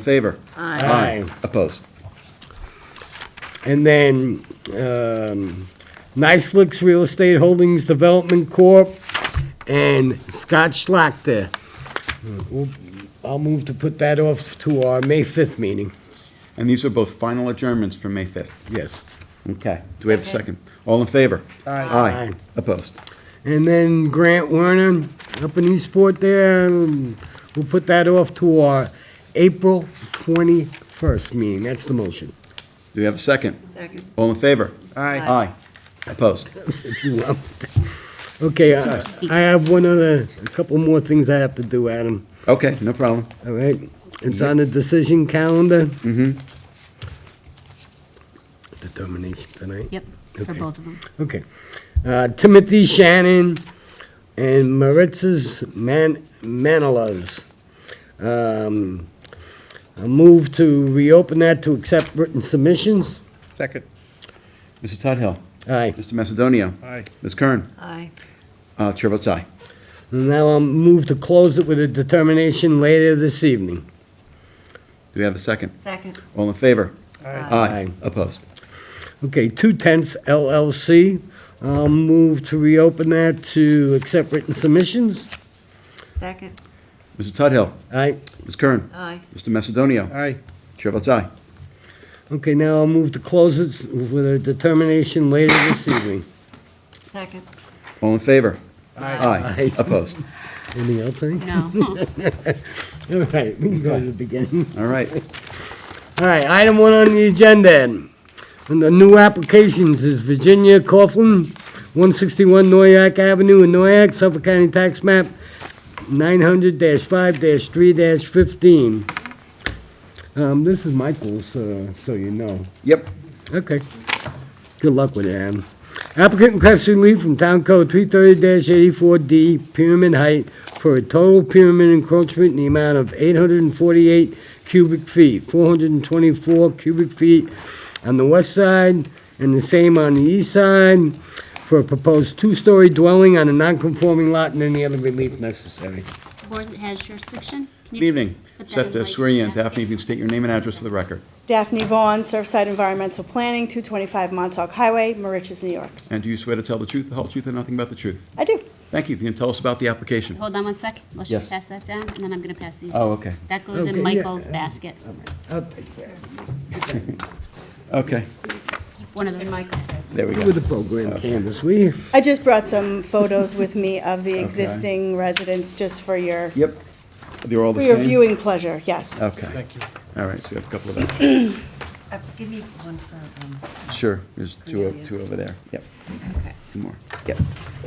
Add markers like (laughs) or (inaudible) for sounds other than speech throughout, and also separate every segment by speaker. Speaker 1: Favor?
Speaker 2: Aye.
Speaker 1: Opposed?
Speaker 2: And then, um, Nice Licks Real Estate Holdings Development Corp. and Scott Schlachter. We'll- I'll move to put that off to our May 5th meeting.
Speaker 1: And these are both final adjournments for May 5th.
Speaker 2: Yes.
Speaker 1: Okay. Do we have a second? All in favor? Aye.
Speaker 2: Aye.
Speaker 1: Opposed?
Speaker 2: And then Grant Werner, up in Eastport there, um, we'll put that off to our April 21st meeting. That's the motion.
Speaker 1: Do we have a second?
Speaker 3: Second.
Speaker 1: All in favor?
Speaker 2: Aye.
Speaker 1: Aye. Opposed?
Speaker 2: if you want. (laughs) Okay, I I have one other, a couple more things I have to do, Adam.
Speaker 1: Okay, no problem.
Speaker 2: All right, it's on the decision calendar. Mm-hmm. Determination tonight?
Speaker 3: Yep, for
Speaker 2: Okay.
Speaker 3: both of them.
Speaker 2: Okay. Uh, Timothy Shannon and Maritz's Man, Manilovs. Um, I move to reopen that to accept written submissions.
Speaker 4: Second.
Speaker 1: Mr. Todd Hill?
Speaker 2: Aye.
Speaker 1: Mr. Macedonio?
Speaker 4: Aye.
Speaker 1: Ms. Kern?
Speaker 3: Aye.
Speaker 1: Uh, Chair votes aye.
Speaker 2: And Now I'll move to close it with a determination later this evening.
Speaker 1: Do we have a second?
Speaker 3: Second.
Speaker 1: All in favor?
Speaker 3: Aye.
Speaker 2: Aye.
Speaker 1: Opposed?
Speaker 2: Okay, Two Tenths LLC, I'll move to reopen that to accept written submissions.
Speaker 3: Second.
Speaker 1: Mr. Todd Hill?
Speaker 2: Aye.
Speaker 1: Ms. Kern?
Speaker 3: Aye.
Speaker 1: Mr. Macedonio?
Speaker 4: Aye.
Speaker 1: Chair votes aye.
Speaker 2: Okay, now I'll move to close it with a determination later this evening.
Speaker 3: Second.
Speaker 1: All in favor?
Speaker 2: Aye.
Speaker 1: Opposed?
Speaker 2: Anything else, Ernie?
Speaker 3: (laughs) No.
Speaker 2: All right, we can go to the beginning.
Speaker 1: All right.
Speaker 2: All right, item one on the agenda. And the new applications is Virginia Coughlin, 161 Noyak Avenue in Noyak, Suffolk County Tax Map 900-5-3-15. Um, This is Michael's, uh, so you know.
Speaker 1: Yep.
Speaker 2: Okay. Good luck with it, Adam. Applicant requests relief from Town Code three thirty eighty-four D, pyramid height, for a total pyramid encroachment in the amount of eight hundred and forty-eight cubic feet, four hundred and twenty-four cubic feet on the west side, and the same on the east side, for a proposed two-story dwelling on a non-conforming lot and any other relief necessary.
Speaker 5: board that has jurisdiction. Can you
Speaker 1: Good evening.
Speaker 5: just put that
Speaker 1: Set to
Speaker 5: in place
Speaker 1: swear in.
Speaker 5: and
Speaker 1: Daphne, if you can state your name and address for the record.
Speaker 6: Daphne Vaughn, Surfside Environmental Planning, 225 Montauk Highway, Mauritius, New York.
Speaker 1: And do you swear to tell the truth, the whole truth, and nothing but the truth?
Speaker 6: I do.
Speaker 1: Thank you. If you can tell us about the application.
Speaker 5: Hold on one sec. Let's just
Speaker 1: Yes.
Speaker 5: pass that down, and then I'm going to pass these.
Speaker 1: Oh, okay.
Speaker 5: That goes
Speaker 2: Okay, yeah.
Speaker 5: in Michael's basket.
Speaker 2: I'll take care of
Speaker 1: Okay.
Speaker 5: One of those.
Speaker 3: Michael says.
Speaker 1: There we
Speaker 2: it. With
Speaker 1: go.
Speaker 2: the program canvas, will you?
Speaker 6: I just brought some photos with me of the existing residents, just for your,
Speaker 1: Yep. They're all the
Speaker 6: for
Speaker 1: same?
Speaker 6: your viewing pleasure, yes.
Speaker 1: Okay. Thank you. All right, so we have a couple of them.
Speaker 3: Uh, Give me one for, um,
Speaker 1: Sure. There's two, o-
Speaker 3: Cornelius.
Speaker 1: two over there. Yep.
Speaker 3: okay.
Speaker 1: Two more. Yep.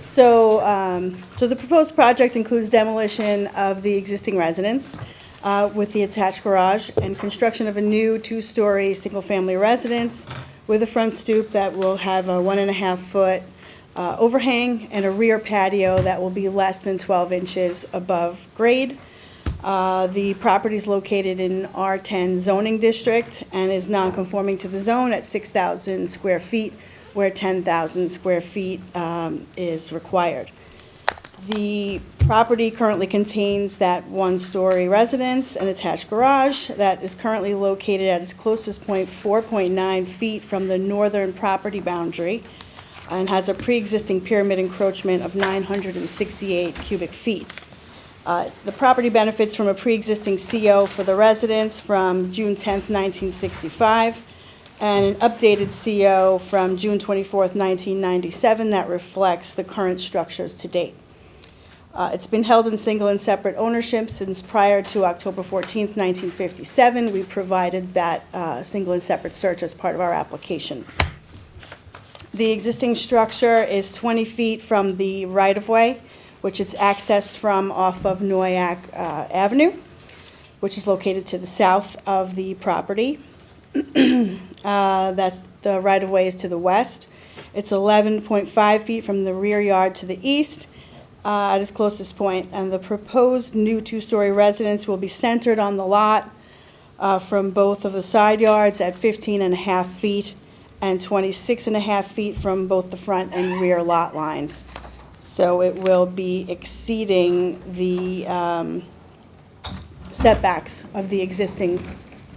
Speaker 6: So, um, so the proposed project includes demolition of the existing residence uh, with the attached garage and construction of a new two-story, single-family residence with a front stoop that will have a one-and-a-half-foot overhang and a rear patio that will be less than 12 inches above grade. Uh, The property is located in R10 zoning district and is non-conforming to the zone at 6,000 square feet, where 10,000 square feet um, is required. The property currently contains that one-story residence and attached garage that is currently located at its closest point, 4.9 feet from the northern property boundary, and has a pre-existing pyramid encroachment of 968 cubic feet. Uh, The property benefits from a pre-existing CO for the residents from June 10th, 1965, and an updated CO from June 24th, 1997 that reflects the current structures to date. Uh, It's been held in single and separate ownership since prior to October 14th, 1957. We provided that uh, single and separate search as part of our application. The existing structure is 20 feet from the right-of-way, which it's accessed from off of Noyak uh, Avenue, which is located to the south of the property. Uh, That's, the right-of-way is to the west. It's 11.5 feet from the rear yard to the east uh, at its closest point, and the proposed new two-story residence will be centered on the lot uh, from both of the side yards at 15 and a half feet and 26 and a half feet from both the front and rear lot lines. So it will be exceeding the um, setbacks of the existing